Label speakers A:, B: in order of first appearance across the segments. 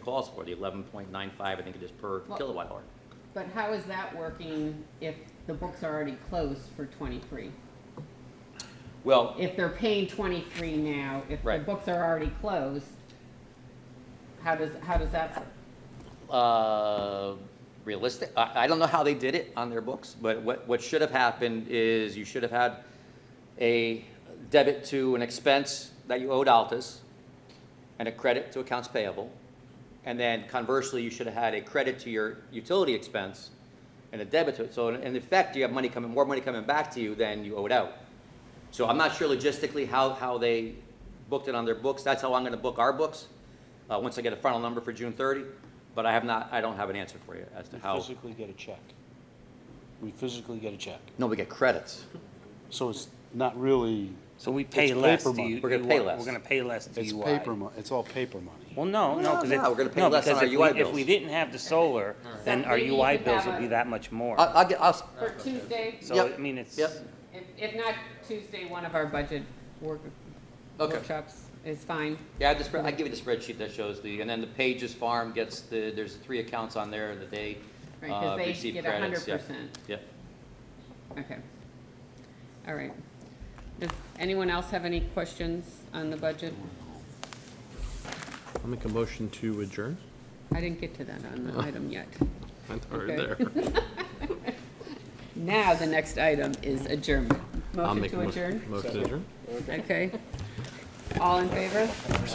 A: calls for, the eleven point nine five, I think it is per
B: Well-
A: kilowatt hour.
B: But how is that working if the books are already closed for twenty-three?
A: Well,
B: If they're paying twenty-three now, if the
A: Right.
B: books are already closed, how does, how does that,
A: uh, realistic, I, I don't know how they did it on their books, but what, what should have happened is you should have had a debit to an expense that you owed Altus and a credit to accounts payable. And then conversely, you should have had a credit to your utility expense and a debit to it. So in in effect, you have money coming, more money coming back to you than you owed out. So I'm not sure logistically how, how they booked it on their books. That's how I'm gonna book our books, uh, once I get a final number for June thirty. But I have not, I don't have an answer for you as to
C: We
A: how.
C: physically get a check. We physically get a check.
A: No, we get credits.
C: So it's not really,
D: So we pay
C: It's
D: less
C: paper
D: to
C: money.
D: you.
A: We're gonna pay
D: UI.
A: less.
D: We're gonna pay less to
C: it's
D: UI.
C: paper mo, it's all paper money.
D: Well, no, no,
A: No,
D: because
A: no,
D: if.
A: we're gonna pay
D: no,
A: less on
D: because
A: our
D: if
A: UI
D: we- If we
A: bills.
D: didn't have the solar, then
B: So
D: our
B: maybe you
D: UI
B: could
D: bills
B: have
D: would be
B: a-
D: that much more.
A: I, I'll get, I'll, s-
B: for Tuesday?
D: So, I
A: Yep.
D: mean, it's,
A: Yep.
B: If, if not Tuesday, one of our budget work,
A: Okay.
B: workshops is fine.
A: yeah, I just, I give you the spreadsheet that shows the, and then the Pages Farm gets the, there's three accounts on there that they,
B: Right,
A: uh,
B: because they
A: receive
B: get
A: credits.
B: hundred
A: Yeah.
B: percent,
A: Yeah.
B: okay. All right. Does anyone else have any questions on the budget?
E: I'll make a motion to adjourn. Oh.
B: I didn't get to that on the item yet.
E: That's hard
B: Okay.
E: there.
B: Now, the next item is adjournment.
E: I'll
B: Motion
E: make a
B: to
E: mo-
B: adjourn,
E: Motion to adjourn.
B: okay? All in favor?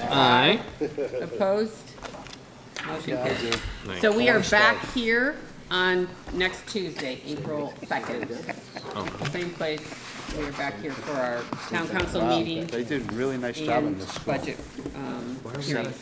E: Aye.
B: Opposed? Motion carried.
E: Nice.
B: So we are back here on next Tuesday, April 2nd. Same place, we are back here for our town council meeting
C: They did a really nice job on
B: and
C: this.
B: budget um, hearing.